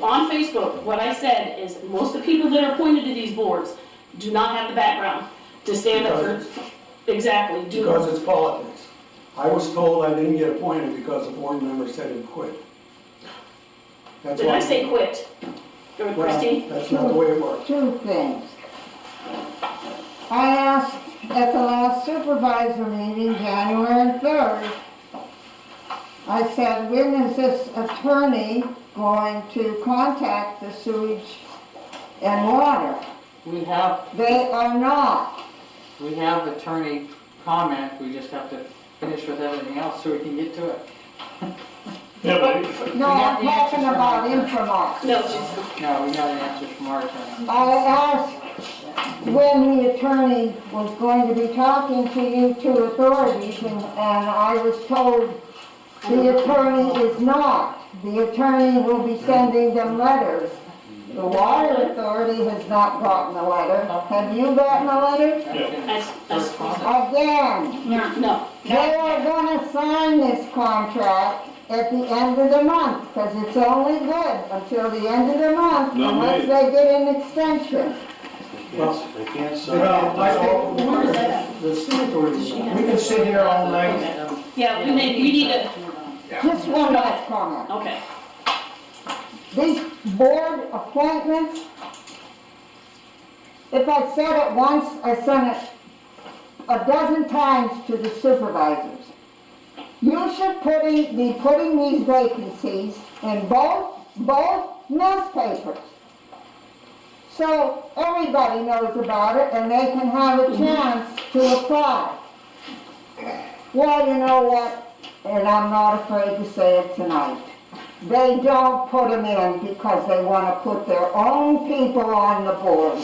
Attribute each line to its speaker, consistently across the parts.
Speaker 1: on Facebook, what I said is, most of the people that are appointed to these boards do not have the background to stand up
Speaker 2: Because
Speaker 1: for, exactly, do,
Speaker 2: Because it's politics. I was told I didn't get appointed because a board member said he quit. That's
Speaker 1: did
Speaker 2: why-
Speaker 1: I say quit? Or
Speaker 2: Well,
Speaker 1: Christine?
Speaker 2: That's not the way it works.
Speaker 3: two things. I asked at the last supervisor meeting, January third, I said, when is this attorney going to contact the sewage and water?
Speaker 4: We have,
Speaker 3: They are not.
Speaker 4: we have attorney comment, we just have to finish with everything else so we can get to it.
Speaker 5: Yeah, but
Speaker 3: No, I'm talking about Infomart.
Speaker 1: No, she's-
Speaker 4: No, we got an answer from our attorney.
Speaker 3: I asked when the attorney was going to be talking to you two authorities, and, and I was told the attorney is not. The attorney will be sending them letters. The water authority has not gotten a letter. Have you gotten a letter?
Speaker 4: That's in
Speaker 1: That's- that's-
Speaker 4: correspondence.
Speaker 3: Again,
Speaker 1: no,
Speaker 3: they are gonna sign this contract at the end of the month, because it's only good until the end of the month,
Speaker 5: No,
Speaker 3: unless they
Speaker 5: wait.
Speaker 3: get an extension.
Speaker 2: Well,
Speaker 5: I can't
Speaker 2: You know, I think the
Speaker 1: Where is that at?
Speaker 2: the signatories,
Speaker 6: We can sit here all night.
Speaker 4: Okay.
Speaker 1: yeah, we need, we need to,
Speaker 3: Just one last comment.
Speaker 1: okay.
Speaker 3: These board appointments, if I said it once, I said it a dozen times to the supervisors. You should putting, be putting these vacancies in both, both newspapers. So everybody knows about it and they can have a chance to apply. Well, you know what, and I'm not afraid to say it tonight. They don't put them in because they want to put their own people on the board.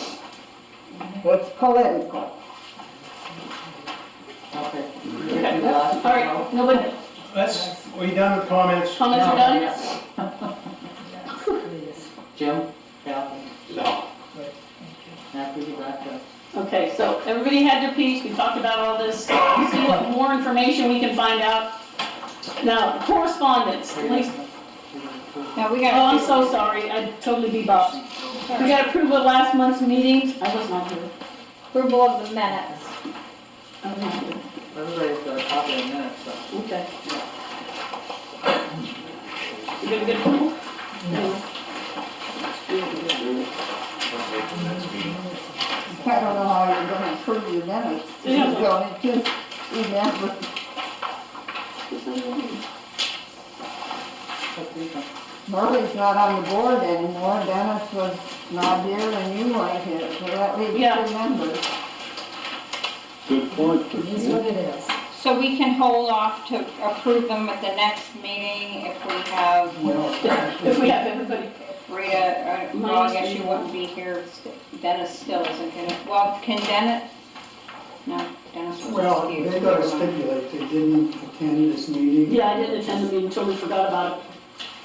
Speaker 3: It's political.
Speaker 4: Okay. We
Speaker 1: Okay.
Speaker 4: get to the
Speaker 1: All
Speaker 4: last
Speaker 1: right, nobody,
Speaker 6: Let's, we done with comments?
Speaker 1: comments are done?
Speaker 4: done? Jim, Kathy,
Speaker 5: No.
Speaker 4: Kathy, you back up.
Speaker 1: Okay, so everybody had their piece, we talked about all this, see what more information we can find out. Now, correspondence, Lisa-
Speaker 7: Now, we
Speaker 1: oh, I'm
Speaker 7: got,
Speaker 1: so sorry, I totally bebopped. We got approval of last month's meeting, I was not here.
Speaker 7: approval of the minutes.
Speaker 1: I was not here.
Speaker 4: Everybody's got a copy of minutes, so.
Speaker 1: Okay. You gonna get approval? No.
Speaker 3: I don't know how you're gonna improve your minutes. You
Speaker 1: Yeah.
Speaker 3: don't just remember. Murray's not on the board anymore, Dennis was not here and you weren't here, so that leaves
Speaker 1: Yeah.
Speaker 3: two members.
Speaker 5: Good point.
Speaker 7: So we can hold off to approve them at the next meeting if we have
Speaker 1: If we have everybody,
Speaker 7: Rita, or, well, I guess you wouldn't be here. Dennis still isn't gonna, well, can Dennis? No, Dennis
Speaker 2: well,
Speaker 7: was excused.
Speaker 2: they gotta stipulate they didn't attend this meeting.
Speaker 1: yeah, I didn't attend the meeting, totally forgot about it.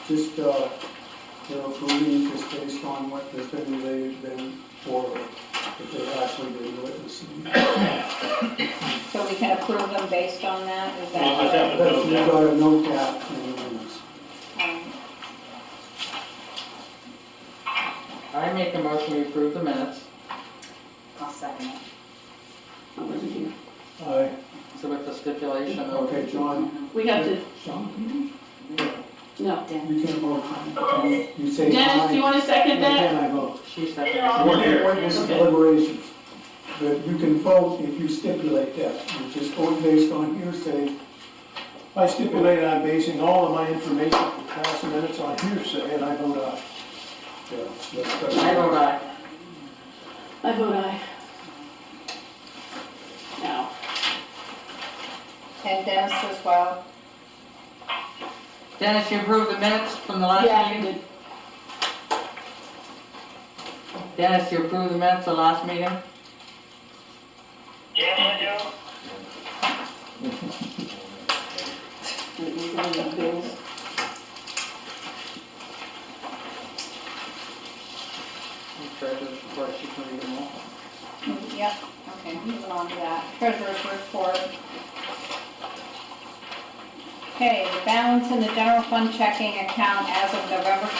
Speaker 2: Just, uh, you know, approving just based on what has been relayed then forward, if they actually been witnessing.
Speaker 7: So we can approve them based on that, is
Speaker 5: Well, I
Speaker 7: that?
Speaker 5: have-
Speaker 2: But you gotta note that in the minutes.
Speaker 7: um,
Speaker 4: I make a motion, we approve the minutes.
Speaker 1: I wasn't here.
Speaker 2: Aye.
Speaker 4: So with the stipulation of.
Speaker 2: Okay, John,
Speaker 1: We have to,
Speaker 2: John,
Speaker 1: no.
Speaker 2: you can't vote. aye. You say aye.
Speaker 1: Dennis, do you wanna second
Speaker 2: and
Speaker 1: that?
Speaker 2: Then I vote.
Speaker 4: She said.
Speaker 5: We're here.
Speaker 2: Witness deliberations, but you can vote if you stipulate that, you just vote based on hearsay.
Speaker 6: I stipulate I'm basing all of my information for past minutes on hearsay, and I vote aye.
Speaker 2: Yeah, that's good.
Speaker 4: I uh, vote aye.
Speaker 1: I vote aye. Now,
Speaker 7: And Dennis as well.
Speaker 4: Dennis, you approved the minutes from the
Speaker 1: yeah,
Speaker 4: last
Speaker 1: you
Speaker 4: meeting?
Speaker 1: did.
Speaker 4: Dennis, you approved the minutes of the last meeting?
Speaker 1: We're going to bills.
Speaker 4: You tried to report, she can read them all.
Speaker 7: Um, Yep, okay, moving on to that. Treasurer's report. Okay, the balance in the general fund checking account as of November